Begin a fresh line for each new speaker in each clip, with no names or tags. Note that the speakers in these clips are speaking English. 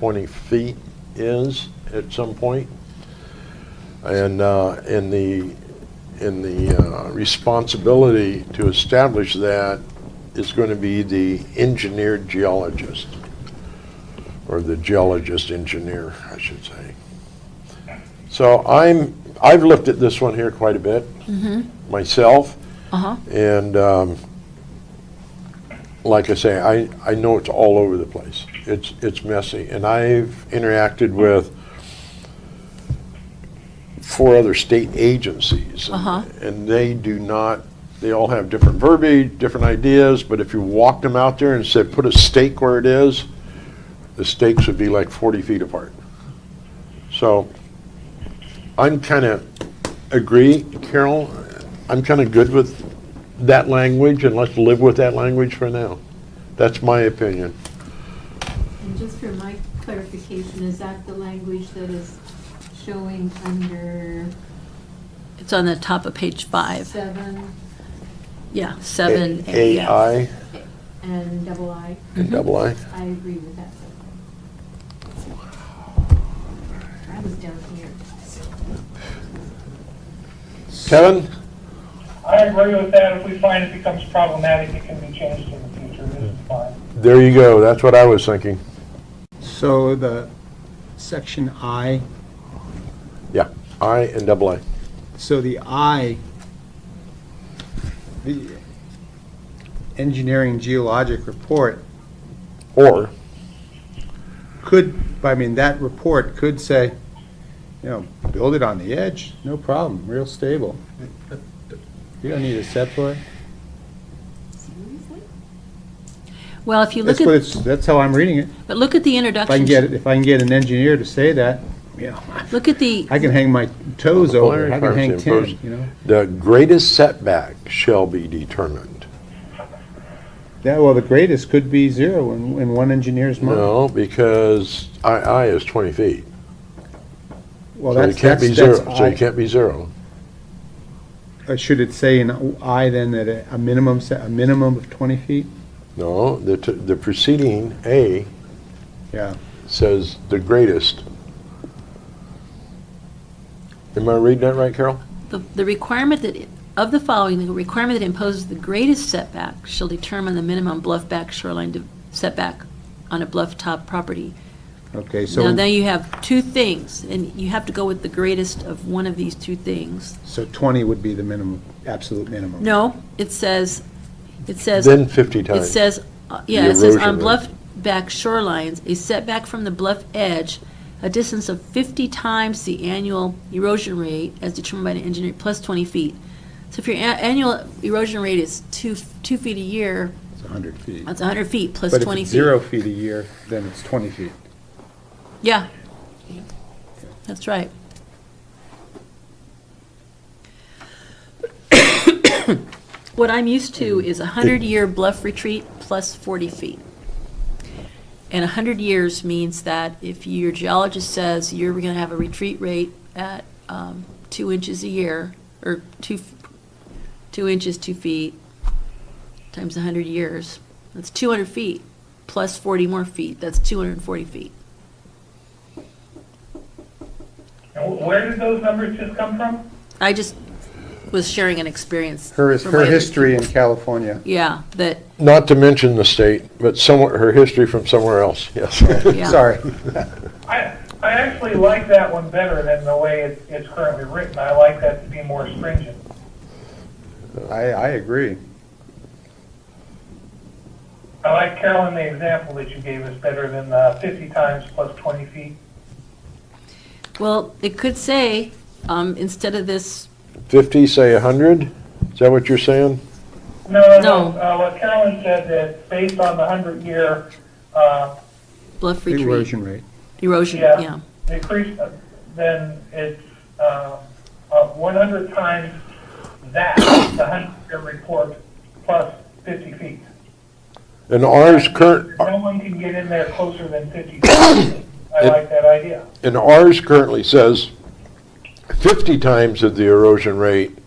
20 feet is at some point. And uh, in the, in the uh, responsibility to establish that is going to be the engineered geologist, or the geologist engineer, I should say. So I'm, I've looked at this one here quite a bit myself.
Uh-huh.
And um, like I say, I, I know it's all over the place. It's, it's messy. And I've interacted with four other state agencies. and-
Uh-huh.
And they do not, they all have different verbiage, different ideas, but if you walked them out there and said, put a stake where it is, the stakes would be like 40 feet apart. So I'm kind of, agree, Carol, I'm kind of good with that language, and let's live with that language for now. That's my opinion.
And just for my clarification, is that the language that is showing under
It's on the top of page five.
seven
Yeah, seven. Mm-hmm.
A-
yeah.
AI
and double I?
and double I.
I agree with that. I was down here.
Kevin,
I agree with that. If we find it becomes problematic, it can be changed in the future. It's fine.
there you go, that's what I was thinking.
So the section I,
Yeah, I and double I.
so the I, the engineering geologic report
Or,
could, I mean, that report could say, you know, build it on the edge, no problem, real stable. You don't need a set for it.
Seriously?
Well, if you
That's
look
what
at,
it's, that's how I'm reading it.
but look at the
If I can
introduction.
get, it- if I can get an engineer to say that, you know,
Look at the,
I can hang my toes over, it. I can hang
Requirements
ten,
imposed.
you know?
the greatest setback shall be determined.
Yeah, well, the greatest could be zero in, in one engineer's mind.
No, because I, I is 20 feet.
Well,
So you
that's,
can't
that's,
be
that's,
zero, so you can't be zero.
I- uh, should it say in I then that a- a minimum, se- a minimum of twenty feet?
No, the, t- the preceding A
Yeah.
says the greatest. Am I reading that right, Carol?
the the requirement that, of the following, the requirement that imposes the greatest setback shall determine the minimum bluff back shoreline de- setback on a bluff top property.
Okay,
Now, now
so,
you have two things, and you have to go with the greatest of one of these two things.
so twenty would be the minimum, absolute minimum.
No, it says, it says.
Then 50
It
times.
says, uh, yeah,
The
it says
erosion
on
rate.
bluff back shorelines, a setback from the bluff edge, a distance of 50 times the annual erosion rate as determined by an engineer, plus 20 feet. So if your a- annual erosion rate is two, f- two feet a year,
It's a hundred feet.
that's 100 feet plus
But if
20
it's
feet.
zero feet a year, then it's twenty feet.
Yeah. That's right. What I'm used to is a hundred-year bluff retreat plus forty feet. And a hundred years means that if your geologist says you're gonna have a retreat rate at, um, two inches a year, or two, f- two inches, two feet, times a hundred years, that's two hundred feet, plus forty more feet, that's two hundred and forty feet.
And wh- where did those numbers just come from?
I just was sharing an experience.
Her,
from
her
my-
history in California.
Yeah, that,
Not to mention the state, but somewhere, her history from somewhere else, yes.
yeah.
Sorry.
I, I actually like that one better than the way it, it's currently written. I like that to be more stringent.
I, I agree.
I like Carolyn, the example that you gave us better than the 50 times plus 20 feet.
Well, it could say, um, instead of this,
50, say 100? Is that what you're saying?
No.
No, no. Uh, what Carolyn said that based on the 100 year uh,
bluff retreat,
Erosion rate.
erosion,
Yeah.
yeah.
decrease, uh, then it's uh, uh, 100 times that, the 100-year report, plus 50 feet.
And ours current,
No one can get in there closer than 50 feet. I like that idea.
and ours currently says 50 times of the erosion rate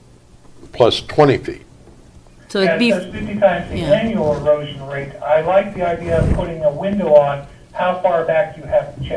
plus 20 feet.
So it'd
Yeah, it
be,
says 50 times the
yeah.
annual erosion rate. I like the idea of putting a window on how far back you have to check.